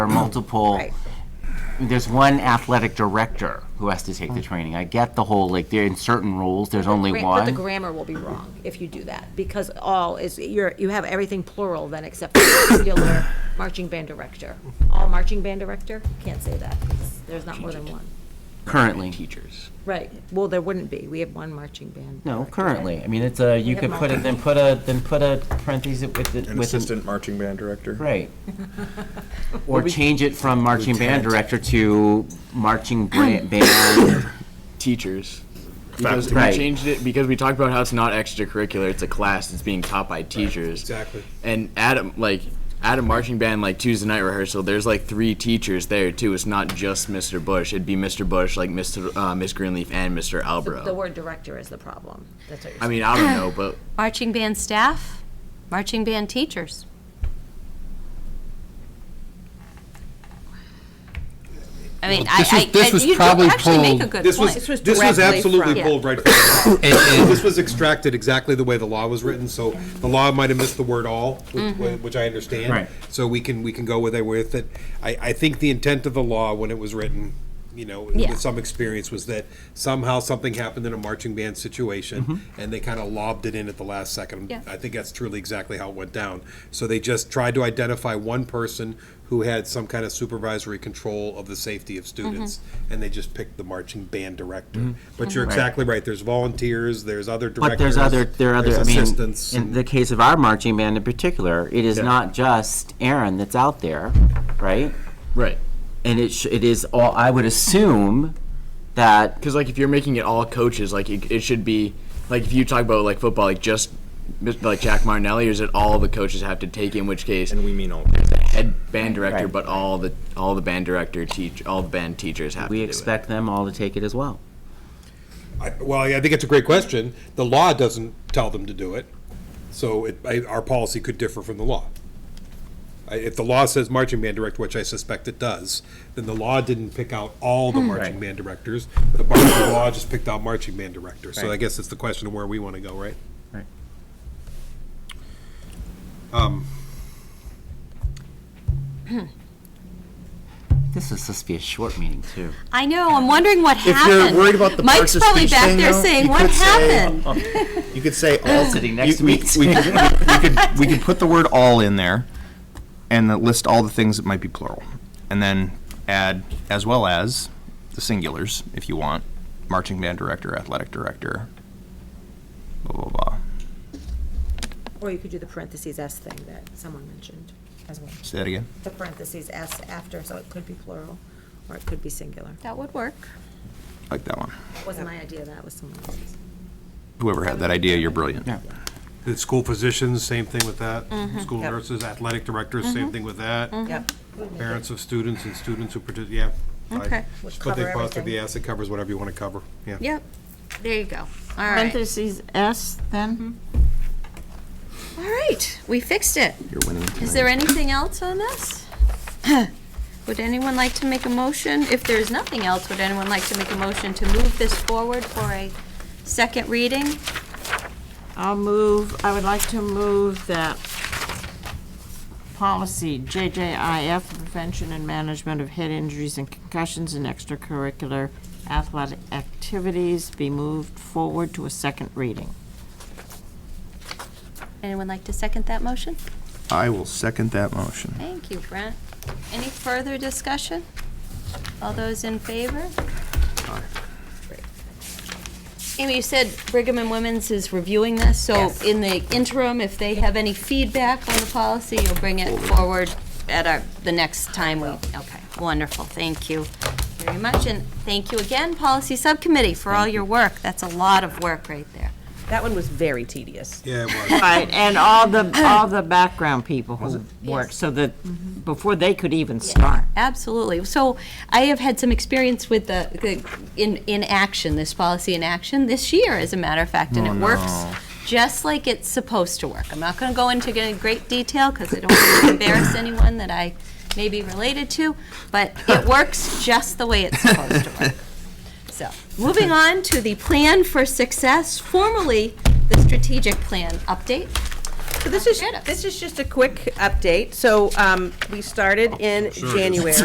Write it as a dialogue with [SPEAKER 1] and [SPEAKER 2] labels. [SPEAKER 1] are multiple,
[SPEAKER 2] Mm. Right.
[SPEAKER 1] there's one athletic director who has to take the training. I get the whole, like, there, in certain roles, there's only
[SPEAKER 2] Gra- Mm. But the
[SPEAKER 1] one.
[SPEAKER 2] grammar will be wrong if you do that, because all is, you're, you have everything plural then except for singular marching band director. All marching band director, can't say that, 'cause there's not more than one.
[SPEAKER 1] Currently. Teachers.
[SPEAKER 2] Right, well, there wouldn't be, we have one marching band.
[SPEAKER 1] No,
[SPEAKER 2] director.
[SPEAKER 1] currently. I mean, it's a, you
[SPEAKER 2] have
[SPEAKER 1] could put it, then put a, then put a parentheses with, the-
[SPEAKER 3] An
[SPEAKER 1] with. an-
[SPEAKER 3] assistant marching band director.
[SPEAKER 1] Right. Or change it from marching band
[SPEAKER 3] Lieutenant.
[SPEAKER 1] director to marching bra- band,
[SPEAKER 4] teachers. Because we
[SPEAKER 1] Right.
[SPEAKER 4] changed it because we talked about how it's not extracurricular; it's a class that's being taught by teachers.
[SPEAKER 5] exactly.
[SPEAKER 4] And Adam, like at a marching band, like Tuesday night rehearsal, there's like three teachers there too. It's not just Mr. Bush. It'd be Mr. Bush, like Mr. Uh, Miss Greenleaf, and Mr. Albro.
[SPEAKER 2] The word director is the problem, that's what you're
[SPEAKER 4] I
[SPEAKER 2] saying.
[SPEAKER 4] mean, I don't know, but
[SPEAKER 6] Marching band staff, marching band teachers. I mean, I,
[SPEAKER 5] this was-
[SPEAKER 6] I,
[SPEAKER 5] this was
[SPEAKER 6] you do
[SPEAKER 5] probably
[SPEAKER 6] actually make a
[SPEAKER 5] pulled-
[SPEAKER 6] good
[SPEAKER 5] This
[SPEAKER 6] point.
[SPEAKER 2] This was
[SPEAKER 5] This was
[SPEAKER 2] directly from-
[SPEAKER 5] absolutely
[SPEAKER 2] Yeah.
[SPEAKER 5] pulled right from, and, and this was extracted exactly the way the law was written, so the law might have missed the word all, which-
[SPEAKER 2] Mm-hmm.
[SPEAKER 5] which I understand.
[SPEAKER 1] Right.
[SPEAKER 5] So we can, we can go with it with it. I, I think the intent of the law when it was written, you know,
[SPEAKER 2] Yeah.
[SPEAKER 5] with some experience, was that somehow something happened in a marching band situation,
[SPEAKER 1] Mm-hmm.
[SPEAKER 5] and they kind of lobbed it in at the last second.
[SPEAKER 6] Yeah.
[SPEAKER 5] I think that's truly exactly how it went down. So they just tried to identify one person who had some kind of supervisory control of the safety of students, and they just picked the marching band director. But you're exactly right, there's volunteers, there's other directors.
[SPEAKER 1] Mm-hmm. but there's other, there are other, I
[SPEAKER 5] there's
[SPEAKER 1] mean,
[SPEAKER 5] assistants,
[SPEAKER 1] in
[SPEAKER 5] and-
[SPEAKER 1] the case of our marching band in particular, it is not just Aaron that's out there, right?
[SPEAKER 4] right.
[SPEAKER 1] And it, sh- it is all, I would assume that,
[SPEAKER 4] Because like if you're making it all coaches, like it, it should be like if you talk about like football, like just like Jack Martinelli, or is it all the coaches have to take? In which case,
[SPEAKER 3] And we mean all.
[SPEAKER 4] head band director,
[SPEAKER 1] Right.
[SPEAKER 4] but all the all the band director teach all the band teachers have.
[SPEAKER 1] we
[SPEAKER 4] to do it.
[SPEAKER 1] expect them all to take it as well.
[SPEAKER 5] I- Well, I think it's a great question. The law doesn't tell them to do it, so it, I, our policy could differ from the law. I- If the law says marching band director, which I suspect it does, then the law didn't pick out all the marching band directors. The bar- the law just picked out marching band director. So I
[SPEAKER 1] Right.
[SPEAKER 5] guess it's the question of where we want to go, right?
[SPEAKER 1] Right.
[SPEAKER 5] Um,
[SPEAKER 1] This is supposed to be a short meeting, too.
[SPEAKER 6] I know, I'm wondering what
[SPEAKER 3] you're
[SPEAKER 6] happened.
[SPEAKER 3] worried about the
[SPEAKER 6] Mike's
[SPEAKER 3] parts of
[SPEAKER 6] probably
[SPEAKER 3] speech
[SPEAKER 6] back
[SPEAKER 3] thing,
[SPEAKER 6] there
[SPEAKER 3] though,
[SPEAKER 6] saying,
[SPEAKER 3] you
[SPEAKER 6] what
[SPEAKER 3] could say- uh,
[SPEAKER 6] happened?
[SPEAKER 3] You could say all.
[SPEAKER 1] Sitting next to
[SPEAKER 3] we-
[SPEAKER 1] me.
[SPEAKER 3] We could, we could, we could put the word all in there and then list all the things that might be plural. And then add as well as the singulars, if you want, marching band director, athletic director, blah, blah, blah.
[SPEAKER 2] Or you could do the parentheses S thing that someone mentioned as well.
[SPEAKER 3] Say that again.
[SPEAKER 2] The parentheses S after, so it could be plural, or it could be singular.
[SPEAKER 6] That would work.
[SPEAKER 3] Like that one.
[SPEAKER 2] Wasn't my idea, that was someone else's.
[SPEAKER 3] Whoever had that idea, you're brilliant.
[SPEAKER 5] The school physicians, same thing with that. School
[SPEAKER 2] Yep.
[SPEAKER 5] nurses, athletic directors, same thing with that.
[SPEAKER 2] Yep.
[SPEAKER 5] Parents of students and students who participate, yeah. I-
[SPEAKER 6] Okay.
[SPEAKER 2] Would
[SPEAKER 5] But they
[SPEAKER 2] cover
[SPEAKER 5] foster the
[SPEAKER 2] everything.
[SPEAKER 5] asset covers whatever you want to cover, yeah.
[SPEAKER 6] Yep, there you go. All right,
[SPEAKER 7] Parentheses S, then?
[SPEAKER 6] all right, we fixed it.
[SPEAKER 3] You're winning tonight.
[SPEAKER 6] Is there anything else on this? Would anyone like to make a motion? If there's nothing else, would anyone like to make a motion to move this forward for a second reading?
[SPEAKER 7] I'll move, I would like to move that policy JJIF, prevention and management of head injuries and concussions in extracurricular athletic activities, be moved forward to a second reading.
[SPEAKER 6] Anyone like to second that motion?
[SPEAKER 3] I will second that motion.
[SPEAKER 6] Thank you, Brent. Any further discussion? All those in favor? Amy, you said Brigham and Women's is reviewing this, so in the interim, if they have any feedback on the policy, you'll bring it forward at our, the next time we, okay, wonderful, thank you very much, and thank you again, Policy Subcommittee, for all your work. That's a lot of work right there.
[SPEAKER 8] That one was very tedious.
[SPEAKER 5] Yeah, it was.
[SPEAKER 7] Right, and all the, all the background people who worked, so that, before they could even start.
[SPEAKER 6] Absolutely. So I have had some experience with the, the in, in action, this policy in action this year, as a matter of fact, and it works just like it's supposed to work. I'm not going to go into g- great detail because I don't want to embarrass anyone that I may be related to, but it works just the way it's supposed to work. So, moving on to the plan for success, formerly the strategic plan update.
[SPEAKER 8] So this is,
[SPEAKER 6] Get it.
[SPEAKER 8] this is just a quick update. So um, we started in January.